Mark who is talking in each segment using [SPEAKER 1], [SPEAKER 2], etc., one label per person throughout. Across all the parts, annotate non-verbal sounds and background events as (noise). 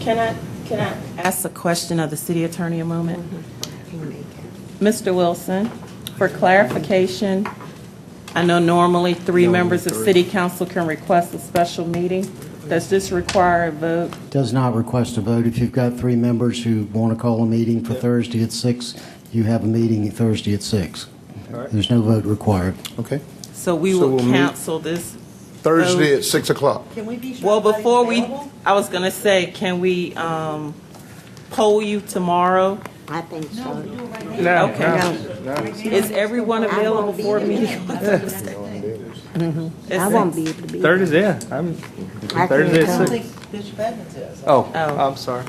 [SPEAKER 1] Can I, can I ask Mm-hmm. a question of the city attorney a moment? Mr. Wilson, for clarification, I know normally three members of city council can request a special meeting. Does this require a vote?
[SPEAKER 2] Does not request a vote. If you've got three members who want to call a meeting for Thursday at six, you have a meeting Thursday at six. There's no vote required.
[SPEAKER 3] Okay.
[SPEAKER 1] So we
[SPEAKER 3] So
[SPEAKER 1] will
[SPEAKER 3] we'll meet-
[SPEAKER 1] cancel this.
[SPEAKER 3] Thursday at 6 o'clock.
[SPEAKER 4] Can we be sure?
[SPEAKER 1] Well,
[SPEAKER 4] everybody's
[SPEAKER 1] before we,
[SPEAKER 4] available?
[SPEAKER 1] I was going to say, can we um, poll you tomorrow?
[SPEAKER 5] I think so.
[SPEAKER 1] Okay.
[SPEAKER 5] No.
[SPEAKER 1] Is everyone available for a meeting? (laughs) Mm-hmm.
[SPEAKER 5] I
[SPEAKER 1] It's-
[SPEAKER 5] won't be able to be.
[SPEAKER 6] Thursday, yeah, I'm,
[SPEAKER 5] I
[SPEAKER 6] Thursday
[SPEAKER 5] couldn't
[SPEAKER 6] at
[SPEAKER 4] I don't
[SPEAKER 5] come.
[SPEAKER 6] six.
[SPEAKER 4] think Bishop Evans is.
[SPEAKER 6] oh,
[SPEAKER 1] Oh.
[SPEAKER 6] I'm sorry.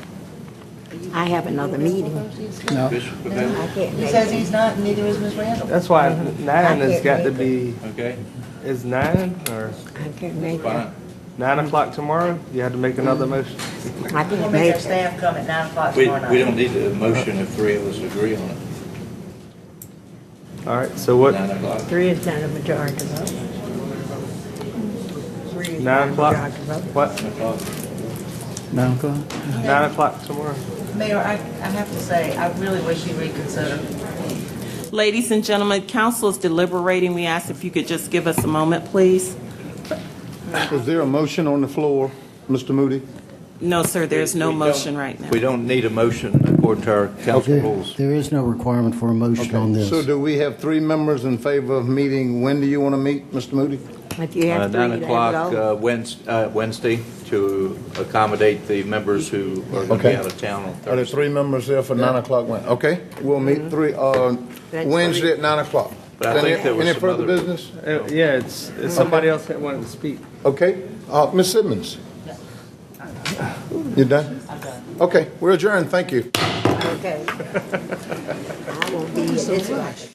[SPEAKER 5] I have another meeting. I can't
[SPEAKER 4] He
[SPEAKER 5] make
[SPEAKER 4] says
[SPEAKER 5] it.
[SPEAKER 4] he's not, neither is Ms. Randall.
[SPEAKER 6] That's why nine has got to be,
[SPEAKER 7] Okay,
[SPEAKER 6] is nine or
[SPEAKER 5] I can't make it.
[SPEAKER 7] fine.
[SPEAKER 6] nine o'clock tomorrow? You had to make another motion?
[SPEAKER 5] I
[SPEAKER 4] We'll
[SPEAKER 5] can't
[SPEAKER 4] make
[SPEAKER 5] make
[SPEAKER 4] our
[SPEAKER 5] it.
[SPEAKER 4] staff come at nine o'clock
[SPEAKER 7] We,
[SPEAKER 4] tomorrow night.
[SPEAKER 7] we don't need a motion if three of us agree on it,
[SPEAKER 6] All right, so what,
[SPEAKER 7] nine o'clock.
[SPEAKER 5] Three is not a majority vote. Three is not
[SPEAKER 6] nine
[SPEAKER 5] a
[SPEAKER 6] o'clock?
[SPEAKER 5] majority vote.
[SPEAKER 6] What,
[SPEAKER 3] Nine o'clock?
[SPEAKER 6] nine o'clock tomorrow?
[SPEAKER 4] Mayor, I, I have to say, I really wish you reconsider.
[SPEAKER 1] Ladies and gentlemen, council is deliberating. We ask if you could just give us a moment, please.
[SPEAKER 3] Is there a motion on the floor, Mr. Moody?
[SPEAKER 1] No, sir, there's no
[SPEAKER 7] We don't-
[SPEAKER 1] motion right now.
[SPEAKER 7] We don't need a motion according to our council
[SPEAKER 2] There
[SPEAKER 7] rules.
[SPEAKER 2] there is no requirement for a motion on
[SPEAKER 3] So
[SPEAKER 2] this.
[SPEAKER 3] do we have three members in favor of meeting? When do you want to meet, Mr. Moody?
[SPEAKER 5] If you
[SPEAKER 7] Uh,
[SPEAKER 5] have three,
[SPEAKER 7] Nine
[SPEAKER 5] they
[SPEAKER 7] o'clock
[SPEAKER 5] vote.
[SPEAKER 7] uh, Wednes- uh, Wednesday to accommodate the members who are going to be
[SPEAKER 3] Okay.
[SPEAKER 7] out of town on
[SPEAKER 3] Are there
[SPEAKER 7] Thursday.
[SPEAKER 3] three members there for 9 o'clock? Wed- Okay, we'll meet three, uh,
[SPEAKER 5] That's
[SPEAKER 3] Wednesday at 9 o'clock.
[SPEAKER 7] But I think
[SPEAKER 3] Any-
[SPEAKER 7] there was
[SPEAKER 3] Any
[SPEAKER 7] some
[SPEAKER 3] further
[SPEAKER 7] other-
[SPEAKER 3] business?
[SPEAKER 6] Uh, Yeah, it's, it's somebody else that wanted to speak.
[SPEAKER 3] Okay, Uh, Ms. Simmons? You done? I'm done. Okay, we're adjourned, thank you.
[SPEAKER 5] Okay. I won't be, it's